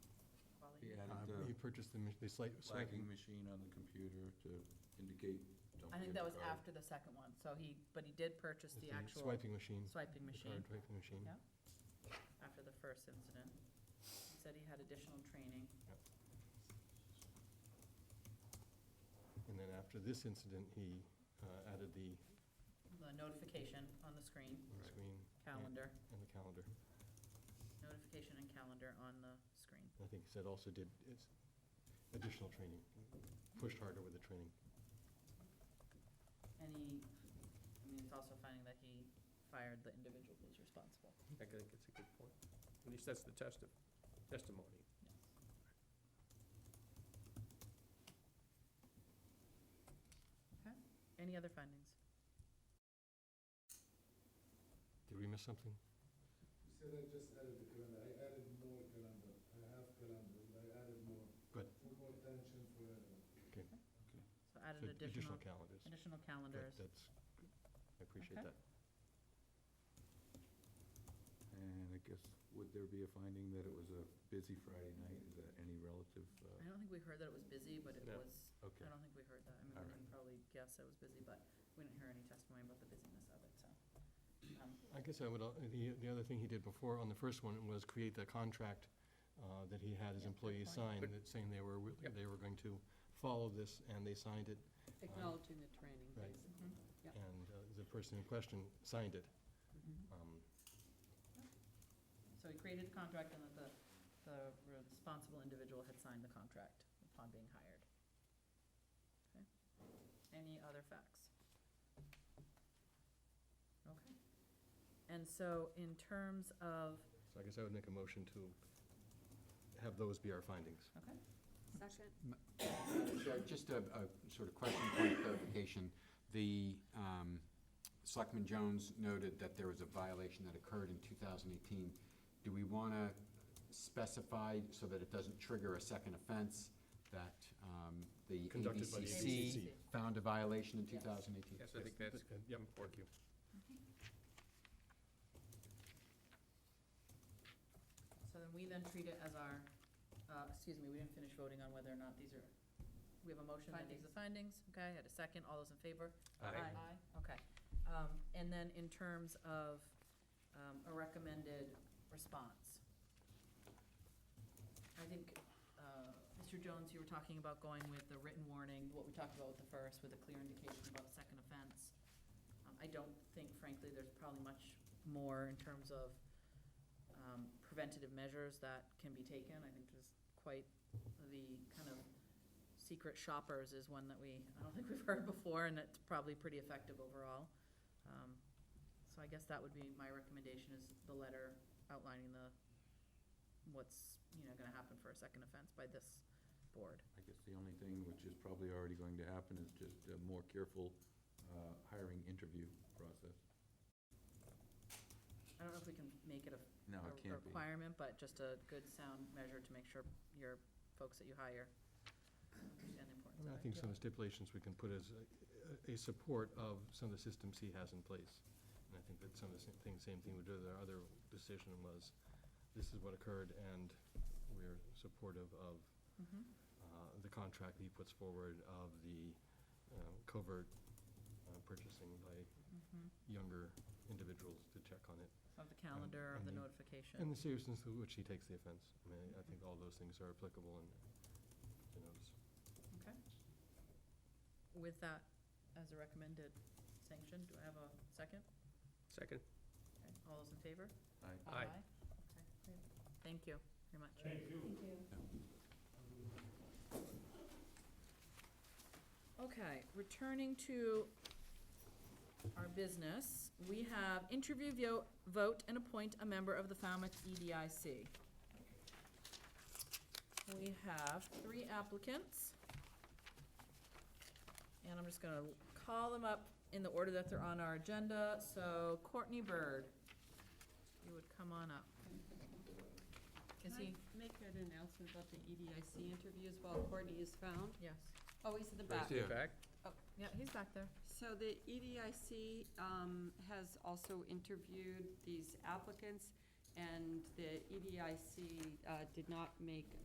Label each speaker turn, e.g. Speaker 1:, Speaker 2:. Speaker 1: Uh, purchased the, mach- they slight,
Speaker 2: Flagging
Speaker 1: swanking.
Speaker 2: uh, machine on the computer to indicate, don't
Speaker 3: I think that
Speaker 2: forget the
Speaker 3: was
Speaker 2: card.
Speaker 3: after the second one, so he, but he did purchase the actual
Speaker 1: Swiping machine.
Speaker 3: swiping
Speaker 1: The
Speaker 3: machine.
Speaker 1: card swiping machine.
Speaker 3: Yeah, after the first incident. He said he had additional training.
Speaker 1: Yep. And then after this incident, he uh, added the
Speaker 3: The notification on the screen,
Speaker 1: the screen. and-
Speaker 3: Calendar.
Speaker 1: And the calendar.
Speaker 3: notification and calendar on the screen.
Speaker 1: I think he said also did is additional training, pushed harder with the training.
Speaker 3: And he, I mean, it's also finding that he fired the individual who's responsible.
Speaker 4: I think it's a good point. At least that's the test of, testimony.
Speaker 3: Yes. Okay, any other findings?
Speaker 1: Did we miss something?
Speaker 5: You said I just added the calendar, I added more calendar, I have calendar, but I added more,
Speaker 1: Good,
Speaker 5: put more attention for everyone.
Speaker 1: okay.
Speaker 2: Okay.
Speaker 3: So
Speaker 1: So
Speaker 3: added
Speaker 1: Additional
Speaker 3: additional,
Speaker 1: calendars.
Speaker 3: additional
Speaker 1: Good,
Speaker 3: calendars.
Speaker 1: That's, good. I appreciate
Speaker 3: Okay.
Speaker 1: that.
Speaker 2: And I guess, would there be a finding that it was a busy Friday night? Is that any relative? uh,
Speaker 3: I don't think we heard that it was busy, but it
Speaker 4: No.
Speaker 3: was, I
Speaker 2: Okay.
Speaker 3: don't think we heard that. I mean,
Speaker 2: All
Speaker 3: we
Speaker 2: right.
Speaker 3: can probably guess it was busy, but we didn't hear any testimony about the busyness of it, so. um,
Speaker 1: I guess I would, uh, the, the other thing he did before on the first one was create the contract uh, that he had
Speaker 3: Yeah,
Speaker 1: his
Speaker 3: good
Speaker 1: employees
Speaker 3: point.
Speaker 1: sign,
Speaker 4: Good.
Speaker 1: that saying they were, wi-
Speaker 4: Yep.
Speaker 1: they were going to follow this, and they signed it,
Speaker 6: Acknowledging the training,
Speaker 1: Right.
Speaker 6: basically.
Speaker 3: mhm.
Speaker 6: Yep.
Speaker 1: and uh, the person in question signed it. Um,
Speaker 3: So he created the contract and that the, the responsible individual had signed the contract upon being hired. Okay. Any other facts? Okay. And so in terms of,
Speaker 1: So I guess I would make a motion to have those be our findings.
Speaker 3: okay,
Speaker 6: Second?
Speaker 7: Sure, just a, a sort of question point of clarification. The, um, Selectman Jones noted that there was a violation that occurred in 2018. Do we want to specify so that it doesn't trigger a second offense that, um, the
Speaker 1: Conducted by the
Speaker 7: ABCC
Speaker 3: ABCC.
Speaker 7: found a violation in
Speaker 3: Yes.
Speaker 7: 2018?
Speaker 4: Yes, I think that's
Speaker 1: Yep, thank
Speaker 4: important.
Speaker 3: so then we then treat it as our, uh, excuse me, we didn't finish voting on whether or not these are, we have a motion that these are findings, okay, I had a second, all those in favor?
Speaker 4: Aye.
Speaker 3: Aye, okay. Um, and then in terms of, um, a recommended response. I think, uh, Mr. Jones, you were talking about going with the written warning, what we talked about with the first, with a clear indication about the second offense. Um, I don't think frankly, there's probably much more in terms of, um, preventative measures that can be taken. I think there's quite the kind of secret shoppers is one that we, I don't think we've heard before, and it's probably pretty effective overall. Um, So I guess that would be my recommendation is the letter outlining the, what's, you know, gonna happen for a second offense by this board.
Speaker 2: I guess the only thing, which is probably already going to happen, is just a more careful uh, hiring interview process.
Speaker 3: I don't know if we can make it a
Speaker 2: No,
Speaker 3: a
Speaker 2: it can't be.
Speaker 3: Requirement, but just a good sound measure to make sure your folks that you hire understand the
Speaker 1: I
Speaker 3: importance of
Speaker 1: mean, I
Speaker 3: it.
Speaker 1: think some of the stipulations we can put as a- a, a support of some of the systems he has in place. And I think that some of the same thing, same thing we did with our other decision was, this is what occurred, and we're supportive of
Speaker 3: Mhm.
Speaker 1: uh, the contract he puts forward of the uh, covert uh, purchasing by
Speaker 3: Mhm.
Speaker 1: younger individuals to check on it.
Speaker 3: Of the calendar, of
Speaker 1: and
Speaker 3: the
Speaker 1: the-
Speaker 3: notification.
Speaker 1: And the seriousness with which he takes the offense. I mean, I think all those things are applicable and, you know, it's-
Speaker 3: Okay. With that as a recommended sanction, do I have a second?
Speaker 4: Second.
Speaker 3: Okay, All those in favor?
Speaker 2: I-
Speaker 4: Aye.
Speaker 3: Okay, great. Thank you very much.
Speaker 6: Thank you.
Speaker 3: Okay, returning to our business, we have interview, vo- vote, and appoint a member of the Falmouth E EDIC. We have three applicants. And I'm just gonna call them up in the order that they're on our agenda. So Courtney Bird, you would come on up. Is he,
Speaker 6: Can I make an announcement about the E EDIC interviews while Courtney is found?
Speaker 3: yes,
Speaker 6: Oh, he's in the back.
Speaker 4: Back?
Speaker 6: Oh.
Speaker 3: yeah, he's back there.
Speaker 6: So the E EDIC um, has also E interviewed these applicants, and the EDIC uh, did not make